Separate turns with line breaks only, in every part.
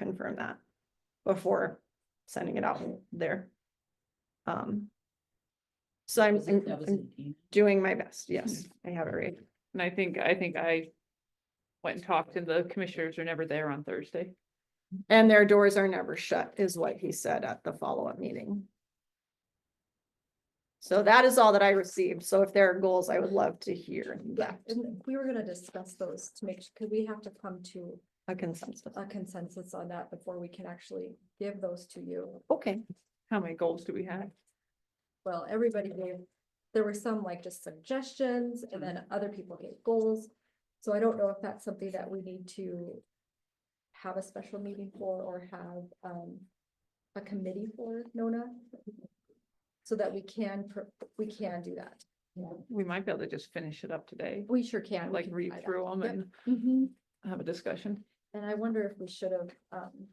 confirm that before sending it out there. Um. So I'm,
Was it- Mm-hmm. that was
I'm
an email?
doing my best, yes, I have it right.
And I think, I think I went and talked and the commissioners are never there on Thursday.
And their doors are never shut is what he said at the follow-up meeting. So that is all that I received. So if there are goals, I would love to hear
Yeah,
that,
and we were gonna discuss those to make, because we have to come to
a consensus.
a consensus on that before we can actually give those to you.
Okay,
How many goals do we have?
Well, everybody gave, there were some like just suggestions and then other people gave goals. So I don't know if that's something that we need to have a special meeting for or have um a committee for Nona. So that we can, pro- we can do that.
We might be able to just finish it up today,
We sure can. we
like
can
read
try that.
through them
Yep.
and
Mhm.
have a discussion.
And I wonder if we should have um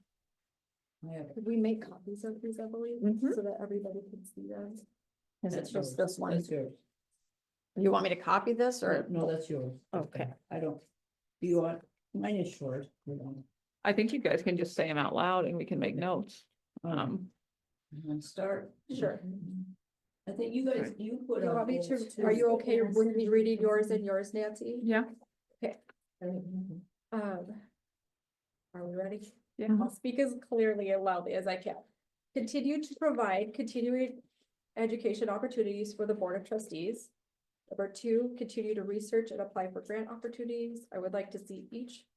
I have-
Could we make copies of these, I believe,
Mhm.
so that everybody can see them?
is it
that's
just
yours.
this one?
That's yours.
You want me to copy this or?
No, that's yours.
Okay.
I don't, do you want, mine is short. you know.
I think you guys can just say them out loud and we can make notes. Um,
You wanna start.
Sure.
I think you guys, you put.
You
out
want me
goals
to,
too.
are you okay with me reading yours and yours, Nancy?
yeah,
Mhm.
Um. Are we ready?
yeah.
I'll speak as clearly and loudly as I can. Continue to provide continuing education opportunities for the Board of Trustees. Number two, continue to research and apply for grant opportunities. I would like to see each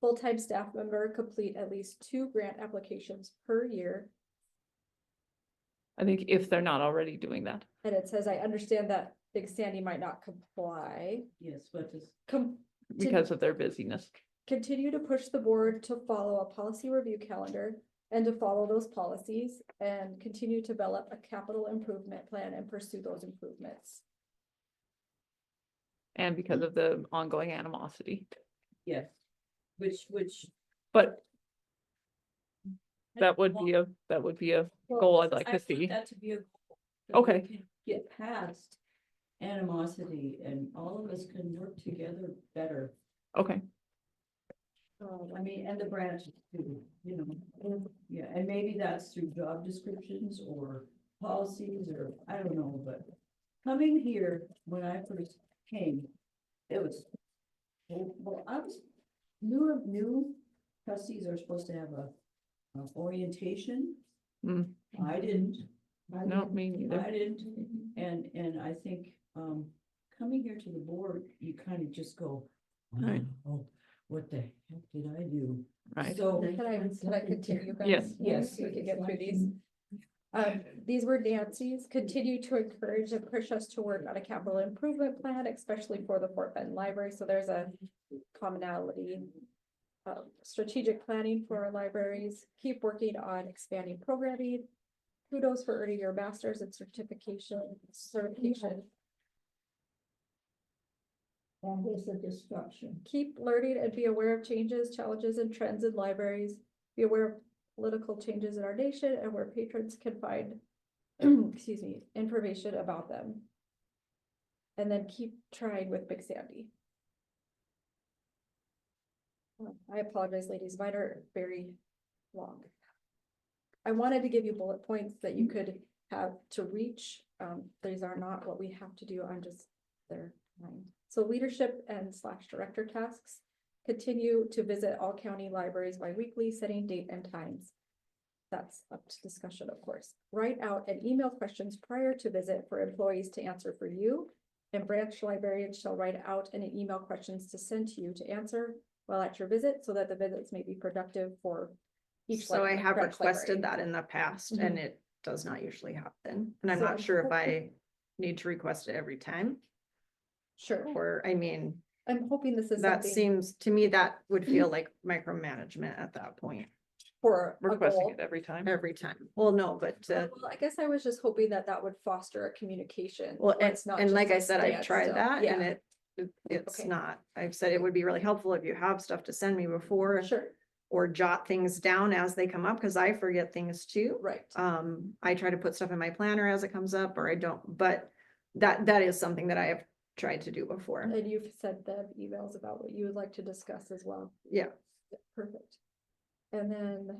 full-time staff member complete at least two grant applications per year.
I think if they're not already doing that.
And it says, I understand that Big Sandy might not comply.
Yes, but just.
Com- Did-
because of their busyness.
continue to push the board to follow a policy review calendar and to follow those policies and continue to develop a capital improvement plan and pursue those improvements.
And because of the ongoing animosity,
Yes. Which, which.
but that would be a, that would be a goal I'd like to see.
That to be a. goal, that we
Okay.
can Get past animosity and all of us can work together better.
Okay,
Um,
I mean, and the branches too, you know, yeah, and maybe that's through job descriptions or policies or, I don't know, but. Coming here, when I first came, it was, well, well, I was, new, new trustees are supposed to have a, a orientation.
Mm.
I didn't. I
no,
didn't.
me neither.
I didn't, and, and I think, um, coming here to the board, you kind of just go,
Right.
wow, what the heck did I do?
Right,
So.
Can I, can I continue? guys?
Yes.
Yes.
We can get through these. Um, these were Nancy's, continue to encourage and push us to work on a capital improvement plan, especially for the Fort Benton Library, so there's a commonality. Um, strategic planning for our libraries, keep working on expanding programming. Kudos for earning your masters and certification, certification,
And there's a destruction.
keep learning and be aware of changes, challenges and trends in libraries. Be aware of political changes in our nation and where patrons can find, excuse me, information about them. And then keep trying with Big Sandy. Um, I apologize, ladies, mine are very long. I wanted to give you bullet points that you could have to reach. Um, these are not what we have to do. I'm just there. So leadership and slash director tasks. Continue to visit all county libraries bi-weekly, setting date and times. That's up to discussion, of course. Write out and email questions prior to visit for employees to answer for you. And branch librarians shall write out and email questions to send to you to answer while at your visit so that the visits may be productive for each.
So I
libra-
have
branch
requested
library.
that in the past
Mhm.
and it does not usually happen. And I'm
So-
not sure if I need to request it every time
Sure,
or, I mean,
I'm hoping this is
that
something
seems, to me, that would feel like micromanagement at that point
for a
requesting
goal.
it every time.
every time. Well, no, but uh,
Well, I guess I was just hoping that that would foster a communication.
Well,
where
and,
it's not
and
just
like
a
I said, I've tried
standstill.
that and
Yeah,
it, it- it's
Okay.
not, I've said it would be really helpful if you have stuff to send me before
Sure,
or jot things down as they come up, cause I forget things too.
right.
Um, I try to put stuff in my planner as it comes up or I don't, but that, that is something that I have tried to do before.
And you've sent them emails about what you would like to discuss as well.
Yeah.
Perfect. And then